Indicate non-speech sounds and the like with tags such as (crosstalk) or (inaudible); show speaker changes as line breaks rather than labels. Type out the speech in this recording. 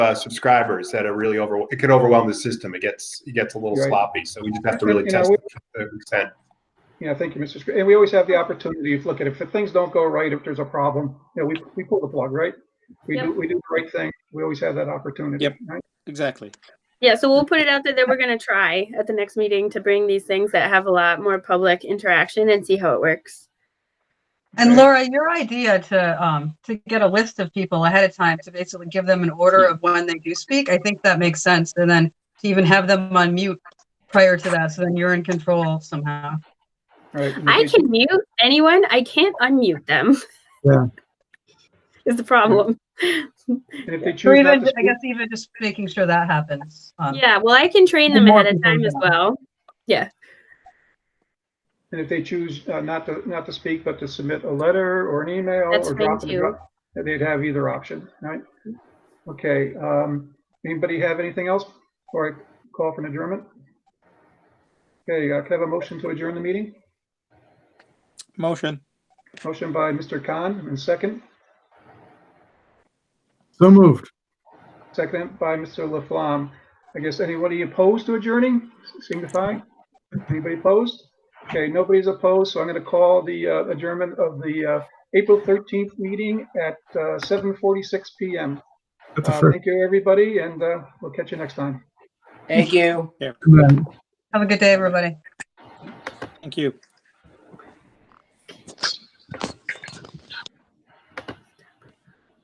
uh, subscribers that are really over. It could overwhelm the system. It gets it gets a little
Right.
sloppy. So we just have to really
You know,
test
we-
it to the extent.
Yeah, thank you, Mr. Scr- And we always
Oh.
have the opportunity to look at it. If things don't go right, if there's a problem, you know, we, we pull the plug, right? We do,
Yep.
we do the right thing. We always have that opportunity.
Yep.
right?
Exactly.
Yeah, so we'll put it out there that we're going to try at the next meeting to bring these things that have a lot more public interaction and see how it works.
And Laura, your idea to, um, to get a list of people ahead of time to basically give them an order of when they do speak, I think that makes sense. And then to even have them on mute prior to that, so then you're in control somehow.
Right. and
I
we-
can mute anyone, I can't unmute them.
Yeah.
(laughs) Is the problem.
And if they
Or
choose not
even,
to
I
speak,
guess even just making sure that happens. um,
Yeah, well, I can train
The
them
more
ahead of
people
time
you
as
have.
well.
and if they choose uh, not to, not to speak, but to submit a letter or an email
That's
or
fine
drop it,
too.
they'd have either option, right? Okay, um, anybody have anything else before I call for an adjournment? Okay, uh, can I have a motion to adjourn the meeting?
Motion.
Motion by Mr. Khan and second,
So moved.
second by Mr. Laflamme. I guess anybody opposed to adjourning, signify? Anybody opposed? Okay, nobody's opposed, so I'm going to call the uh, adjournment of the uh, April 13th meeting at uh, 7:46 PM.
That's a
Uh,
first.
Thank you, everybody, and uh, we'll catch you next time.
Thank you.
Good night.
Have a good day, everybody.
Thank you.